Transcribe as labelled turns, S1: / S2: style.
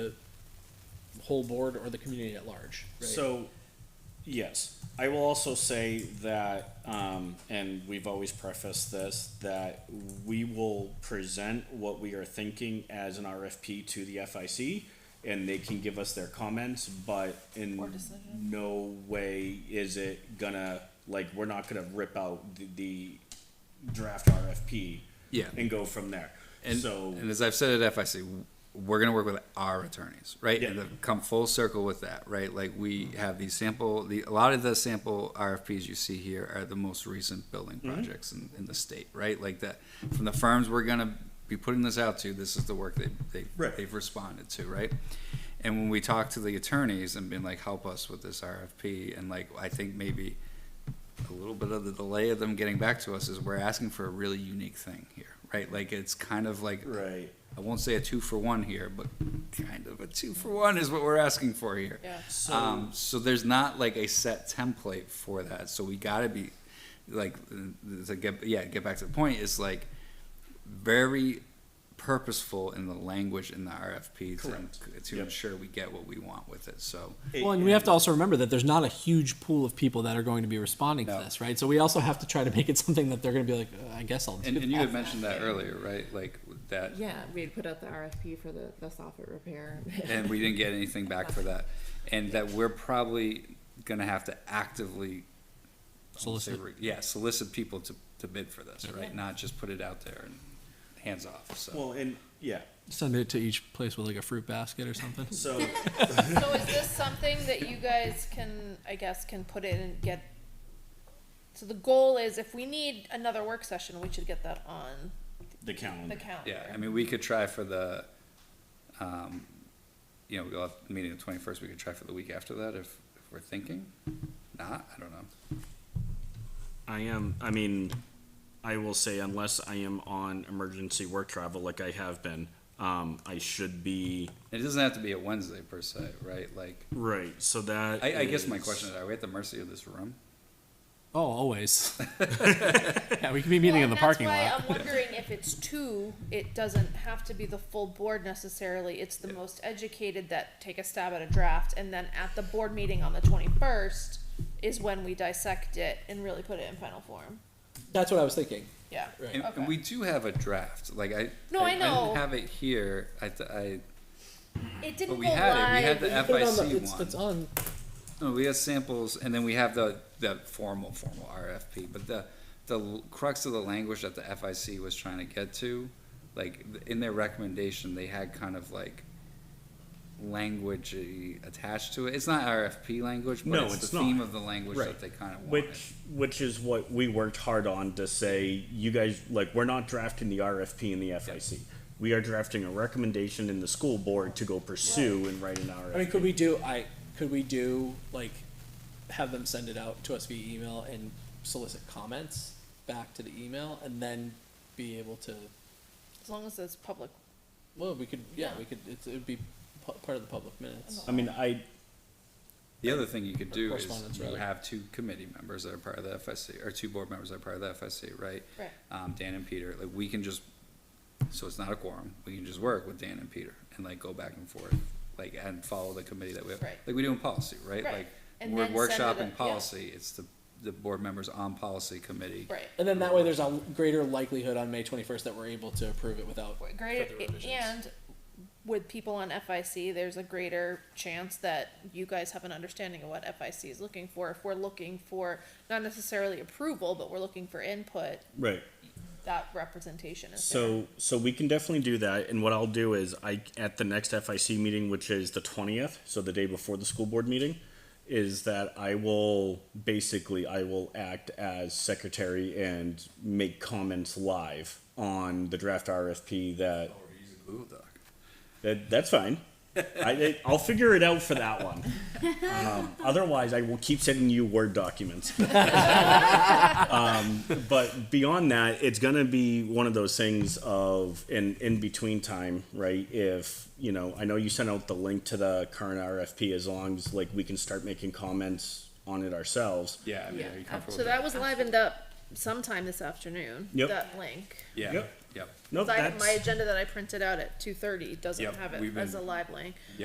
S1: whole board or the community at large. Right?
S2: So, yes, I will also say that, um, and we've always prefaced this, that we will present what we are thinking as an RFP to the FIC. And they can give us their comments, but in
S3: Or decision.
S2: no way is it gonna, like, we're not gonna rip out the, the draft RFP.
S4: Yeah.
S2: And go from there.
S4: And,
S2: So,
S4: and as I've said at FIC, we're going to work with our attorneys, right? And
S2: Yeah.
S4: they've come full circle with that, right? Like we have these sample, the, a lot of the sample RFPs you see here are the most recent building
S2: Mm-hmm.
S4: projects in, in the state, right? Like that, from the firms we're going to be putting this out to, this is the work they, they,
S2: Right.
S4: they've responded to, right? And when we talk to the attorneys and been like, help us with this RFP, and like, I think maybe a little bit of the delay of them getting back to us is we're asking for a really unique thing here, right? Like it's kind of like
S2: right.
S4: I won't say a two for one here, but kind of a two for one is what we're asking for here.
S3: Yeah.
S2: So-
S4: Um, so there's not like a set template for that. So we gotta be like uh, to get yeah get back to the point is like very purposeful in the language in the RFP to,
S2: Correct.
S4: to
S2: Yep.
S4: ensure we get what we want with it. So
S1: Well, and we have to also remember that there's not a huge pool of people that are going to be responding
S4: No.
S1: to this, right? So we also have to try to make it something that they're going to be like, uh, I guess I'll do
S4: and, and you
S1: that."
S4: had mentioned that earlier, right? Like that
S3: Yeah, we had put out the RFP for the, the soffit repair.
S4: and we didn't get anything back for that. And that we're probably gonna have to actively. I won't say
S1: Solicit.
S4: re- Yeah, solicit people to, to bid for this,
S3: Yeah.
S4: right? Not just put it out there and hands off, so.
S2: Well, and, yeah,
S1: Send it to each place with like a fruit basket or something.
S2: so.
S5: So is this something that you guys can, I guess, can put in and get? So the goal is if we need another work session, we should get that on
S2: The calendar.
S5: the calendar.
S4: Yeah, I mean, we could try for the, um, you know, we'll have a meeting the twenty-first, we could try for the week after that if, if we're thinking. Not, I don't know.
S2: I am. I mean, I will say unless I am on emergency work travel, like I have been, um, I should be
S4: It doesn't have to be a Wednesday per se, right? Like,
S2: right. So that.
S4: I, I guess my
S2: is-
S4: question is, are we at the mercy of this room?
S1: Oh, always. yeah, we can be meeting
S5: Well,
S1: in the
S5: and
S1: parking
S5: that's why
S1: lot.
S5: I'm wondering if it's two, it doesn't have to be the full board necessarily. It's the most educated that take a stab at a draft, and then at the board meeting on the twenty-first is when we dissect it and really put it in final form.
S1: That's what I was thinking.
S5: Yeah.
S1: Right.
S4: And, and we do have a draft, like I.
S5: No, I know.
S4: didn't have it here, I, th- I,
S5: It
S4: but
S5: didn't
S4: we
S5: go
S4: had it, we had
S5: live.
S4: the
S1: Put it on the-
S4: FIC
S1: it's,
S4: one.
S1: it's on.
S4: No, we have samples, and then we have the, the formal, formal RFP, but the, the l- crux of the language that the FIC was trying to get to, like, th- in their recommendation, they had kind of like language attached to it, it's not RFP language, but
S2: No,
S4: it's
S2: it's
S4: the theme
S2: not.
S4: of the language
S2: Right.
S4: that they kind of wanted.
S2: Which which is what we worked hard on to say. You guys like we're not drafting the RFP and the FIC. We are drafting a recommendation in the school board to go pursue and write an RFP.
S1: I mean, could we do? I could we do like have them send it out to us via email and solicit comments back to the email, and then be able to.
S5: As long as it's public
S1: Well, we could. Yeah,
S5: Yeah.
S1: we could. It's, it'd be pu- part of the public minutes.
S2: I mean, I
S4: The other thing you could do is
S1: Correspondence,
S4: you
S1: rather.
S4: have two committee members that are part of the FSC, or two board members that are part of the FSC, right?
S5: Right.
S4: Um, Dan and Peter, like, we can just, so it's not a quorum, we can just work with Dan and Peter and like go back and forth, like, and follow the committee that we have.
S5: Right.
S4: Like we do in policy, right?
S5: Right.
S4: Like,
S5: And
S4: we're
S5: then send it up-
S4: workshopping
S5: yeah.
S4: policy, it's the, the board members on policy committee.
S5: Right.
S1: And then that way, there's a greater likelihood on May 21st that we're able to approve it without
S5: Greater,
S1: further revisions.
S5: and with people on FIC, there's a greater chance that you guys have an understanding of what FIC is looking for. If we're looking for, not necessarily approval, but we're looking for input,
S2: right.
S5: that representation is there.
S2: So, so we can definitely do that, and what I'll do is, I, at the next FIC meeting, which is the twentieth, so the day before the school board meeting, is that I will, basically, I will act as secretary and make comments live on the draft RFP that,
S4: Ooh, doc.
S2: that, that's fine. I, I'll figure it out for that one. Um, otherwise, I will keep sending you Word documents Um, but beyond that, it's gonna be one of those things of in in between time, right? If you know, I know you sent out the link to the current RFP. As long as like we can start making comments on it ourselves.
S4: Yeah, I mean,
S3: Yeah,
S4: are you comfortable
S5: So
S4: with
S5: that
S4: that?
S5: was livened up sometime this afternoon,
S2: Yep.
S5: that link.
S4: Yeah,
S2: Yep.
S4: yep.
S2: No,
S5: So I-
S2: that's
S5: My agenda that I printed out at two thirty doesn't
S4: Yep,
S5: have it
S4: we've
S5: as a
S4: been-
S5: live link.